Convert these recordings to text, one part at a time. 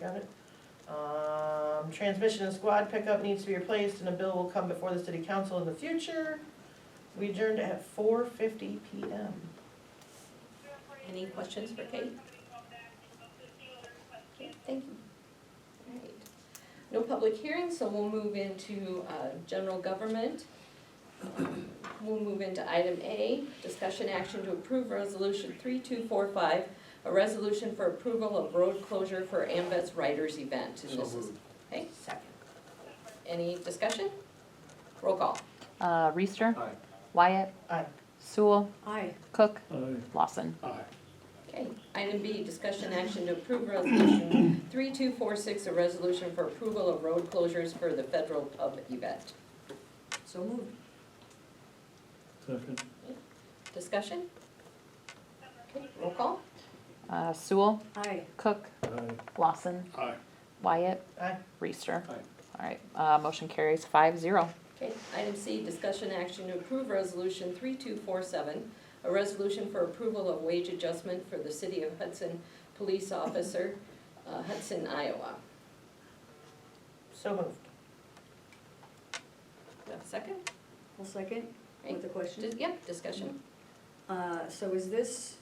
got it. Um, transmission and squad pickup needs to be replaced and a bill will come before the city council in the future. We adjourned at four fifty P M. Any questions for Kate? Okay, thank you. All right. No public hearing, so we'll move into uh, general government. Um, We'll move into item A, discussion action to approve resolution 3245, a resolution for approval of road closure for AMVET's Riders Event. And So this is- moved. Okay, second. Any discussion? Roll call. Uh, Reister. Aye. Wyatt. Aye. Sewell. Aye. Cook. Aye. Lawson. Aye. Okay, item B, discussion action to approve resolution 3246, a resolution for approval of road closures for the federal pub event. So moved. Second. Discussion? Okay, roll call? Uh, Sewell. Aye. Cook. Aye. Lawson. Aye. Wyatt. Aye. Reister. Aye. All right, uh, motion carries five zero. Okay, item C, discussion action to approve resolution 3247, a resolution for approval of wage adjustment for the city of Hudson police officer, uh, Hudson, Iowa. So moved. Do I have a second? I'll second with a question. Dis- Yep, discussion. Uh, So is this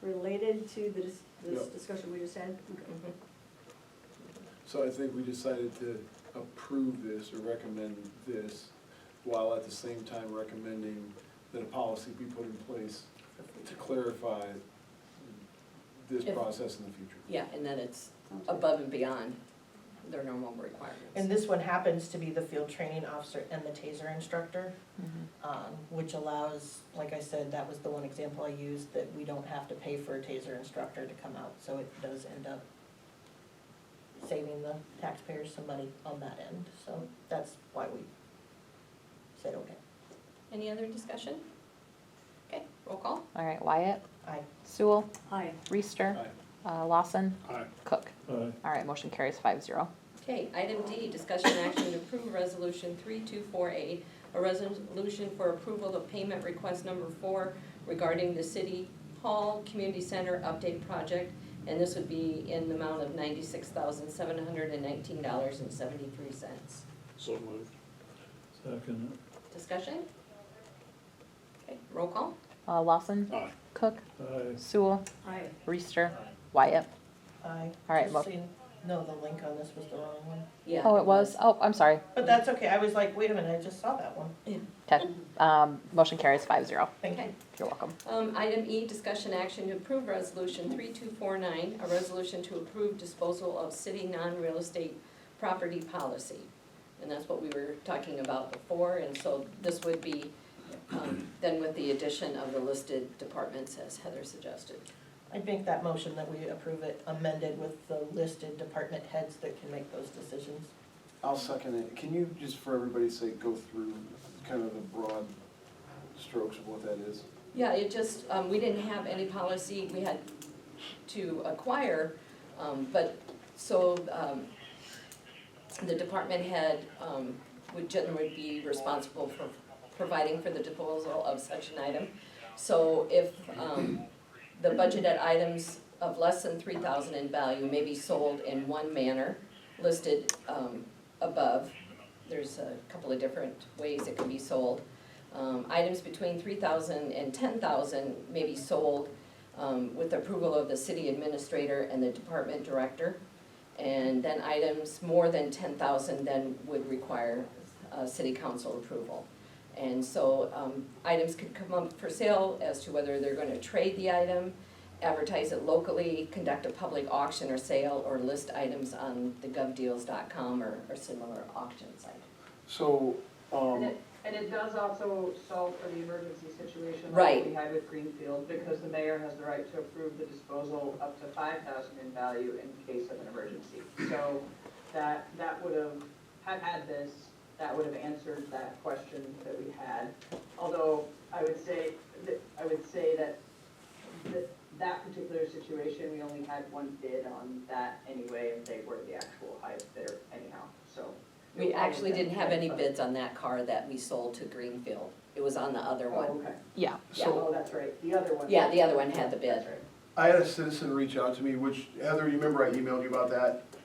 related to the dis- this Yep. discussion we just had? Okay. Mhm. So I think we decided to approve this or recommend this while at the same time recommending that a policy be put in place to clarify this If- process in the future. Yeah, and then it's Sounds good. above and beyond their normal requirements. And this one happens to be the field training officer and the taser instructor, Mhm. um, which allows, like I said, that was the one example I used, that we don't have to pay for a taser instructor to come out, so it does end up saving the taxpayers some money on that end, so that's why we said, okay, Any other discussion? Okay, roll call. All right, Wyatt. I, Sewell. Aye, Reister. Aye. Uh, Lawson. Aye. Cook. Aye. All right, motion carries five zero. Okay, item D, discussion action to approve resolution 3248, a resolution for approval of payment request number four regarding the City Hall Community Center update project, and this would be in the amount of $96,719.73. So moved. Second. Discussion? Okay, roll call. Uh, Lawson. Aye. Cook. Aye. Sewell. aye. Reister. Wyatt. I. All right, just mo- seen- No, the link on this was the wrong one, Yeah. Oh, it was? Oh, I'm sorry. but that's okay, I was like, wait a minute, I just saw that one, Okay, um, motion carries five zero. thank you. Okay. You're welcome. Um, item E, discussion action to approve resolution three-two-four-nine, a resolution to approve disposal of city non-real estate property policy. And that's what we were talking about before, and so this would be, um, then with the addition of the listed departments as Heather suggested. I make that motion that we approve it amended with the listed department heads that can make those decisions. I'll second it. Can you, just for everybody's sake, go through kind of the broad strokes of what that is? Yeah, it just, um, we didn't have any policy, we had to acquire, um, but, so, um, the department head, um, would generally be responsible for providing for the disposal of such an item. So if, um, the budgeted items of less than three thousand in value may be sold in one manner listed, um, above. There's a couple of different ways it can be sold. Um, items between three thousand and ten thousand may be sold, um, with approval of the city administrator and the department director. And then items more than ten thousand then would require, uh, city council approval. And so, um, items could come up for sale as to whether they're gonna trade the item, advertise it locally, conduct a public auction or sale, or list items on the govdeals.com or, or similar auction site. So, And um, it, and it does also solve for the emergency situation Right. like we had with Greenfield, because the mayor has the right to approve the disposal up to five thousand in value in case of an emergency. So that, that would have, had had this, that would have answered that question that we had. Although, I would say, that- I would say that, that, that particular situation, we only had one bid on that anyway, and they were the actual highest bidder anyhow, so. We actually didn't have any bids on that car that we sold to Greenfield. It was on the other Oh, one. okay. Yeah, so Oh, that's right, the other one. Yeah, the other one had the bid. That's right. I had a citizen reach out to me, which Heather, you remember I emailed you about that?